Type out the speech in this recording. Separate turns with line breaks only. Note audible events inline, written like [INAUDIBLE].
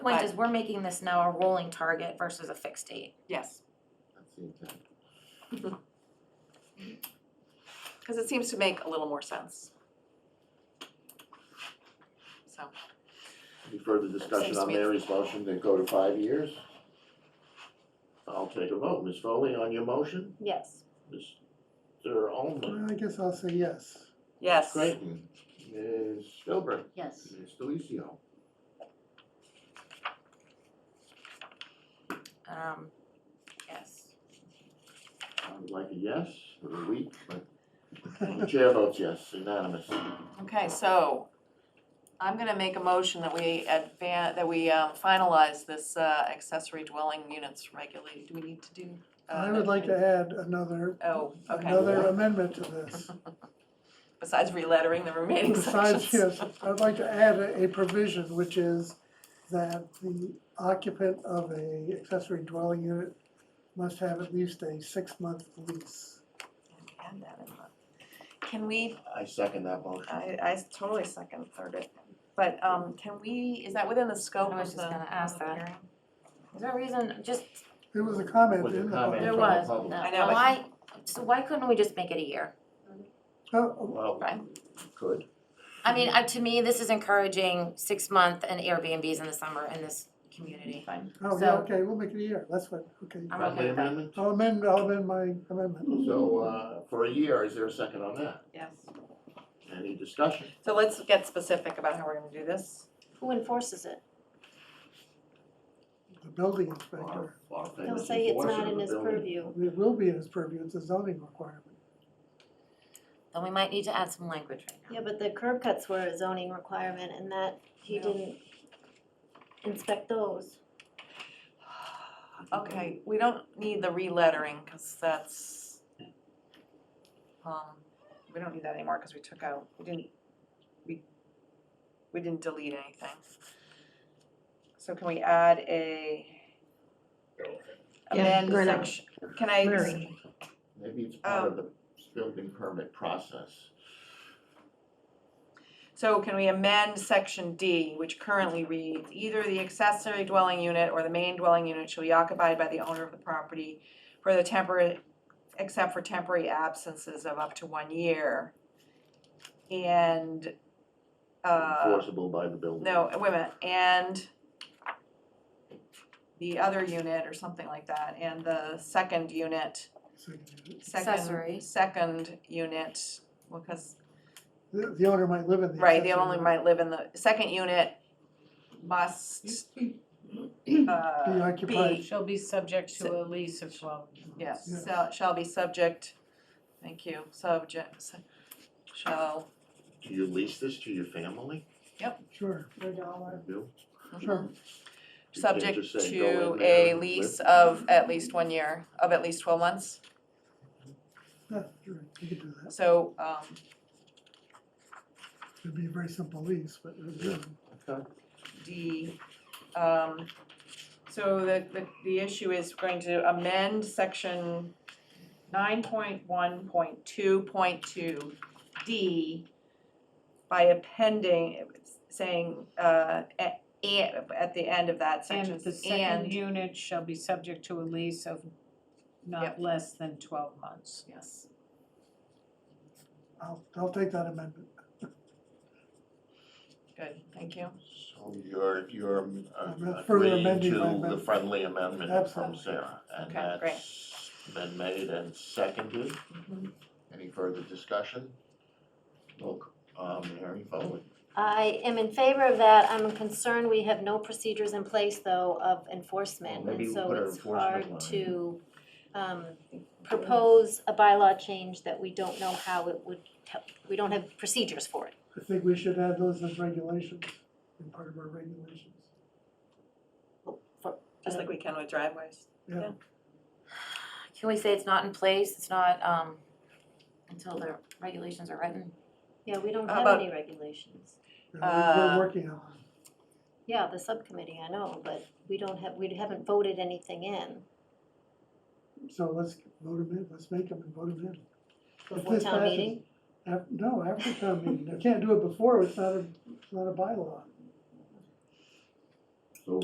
point
But-
is, we're making this now a rolling target versus a fixed date.
Yes,
That's the intent.
because it seems to make a little more sense. So,
Any further discussion
Seems to
on
me-
Mary's motion to go to five years? I'll take a vote. Ms. Foley on your motion,
Yes.
Mr. Olmert,
Well, I guess I'll say yes.
yes.
Creighton, Ms. Philbrook,
Yes.
Ms. Delicio.
Um, yes.
I would like a yes for a week, but the chair votes yes, unanimous.
Okay, so I'm gonna make a motion that we advan, that we um, finalize this uh, accessory dwelling units regulated. Do we need to do? uh,
I would like to add another,
Oh, okay.
another amendment to this.
Besides relettering the remaining sections.
[LAUGHS] Besides, yes, I'd like to add a a provision, which is that the occupant of a accessory dwelling unit must have at least a six-month lease.
Add that in there. Can we,
I second that motion.
I, I totally second third it, but um, can we, is that within the scope
I was
of the
just gonna ask
public
that.
hearing?
Is there a reason, just,
There was a comment
With a
in the.
comment
There
from
public-
was,
the public.
no.
I know, but-
why, so why couldn't we just make it a year?
Oh,
Well,
Right.
could.
I mean, I, to me, this is encouraging six-month and Airbnbs in the summer in this community. Fine.
oh, yeah,
So-
okay, we'll make it a year, that's what, okay.
I'm
Friendly
okay with that.
amendment?
I'll amend, I'll amend my amendment.
So, uh, for a year, is there a second on that?
Yes.
Any discussion?
So let's get specific about how we're gonna do this.
Who enforces it?
The building
Our-
inspector,
our
He'll
famous
say it's
enforcer
not
of
in
the
his
building.
purview.
it will be in his purview, it's a zoning requirement.
Then we might need to add some language right now.
Yeah, but the curb cuts were a zoning requirement and that he
Yeah.
didn't inspect those.
Okay, we don't need the relettering, cause that's, um, we don't need that anymore, cause we took out, we didn't, we, we didn't delete anything. So can we add a
Yeah,
amend
we're not-
section, can I,
Maybe it's part of the building permit process.
so can we amend section D, which currently reads, either the accessory dwelling unit or the main dwelling unit shall be occupied by the owner of the property for the temporary, except for temporary absences of up to one year. And, uh,
Enforceable by the building.
no, wait a minute, and the other unit or something like that, and the second unit,
Second.
Accessory.
second, second unit, well, cause
The the owner might live in the.
Right, they
accessory
only might live in the, second unit uh, must,
Be
uh,
occupied.
be,
Shall be subject to a lease of twelve.
yes,
Yes.
shall, shall be subject, thank you, subject, su- shall,
Do you lease this to your family?
Sure,
Per dollar.
You
sure.
can't
subject
just say, "Go
to
in there
a
and
lease
live."
of at least one year, of at least twelve months,
Yeah, sure, you could do that.
so, um,
It'd be a very simple lease, but it would be-
Okay.
D, um, so the, the, the issue is we're going to amend section nine point one point two point two D by appending, saying, uh, at, at the end of that section,
And
and.
the second unit shall be subject to a lease of
Yep.
not less than twelve months.
Yes,
I'll, I'll take that amendment.
good, thank you.
So you're, you're uh,
I'm not further
agreeing
amending my
to the
amendment.
friendly amendment from
Absolutely.
Sarah. And
Okay, great.
that's been made and seconded.
Mm-hmm.
Any further discussion? Look, uh, Mary Foley,
I am in favor of that. I'm concerned we have no procedures in place though of enforcement.
Well, maybe
And
we'll put
so
an
it's hard
enforcement line.
to um propose a bylaw change that we don't know how it would, help. we don't have procedures for it.
I think we should add those as regulations, in part of our regulations.
Just like we can with driveways.
Yeah,
Can we say it's not in place, it's not, um, until the regulations are written?
Yeah, we don't
How
have
about-
any regulations.
yeah, we-
Uh,
we're working on it.
Yeah, the subcommittee, I know, but we don't have, we haven't voted anything in.
So let's vote them in, let's make them and vote them in. If
Before
this
town
passes-
meeting?
af- No, after town meeting, they can't do it before, it's not a, it's not a bylaw.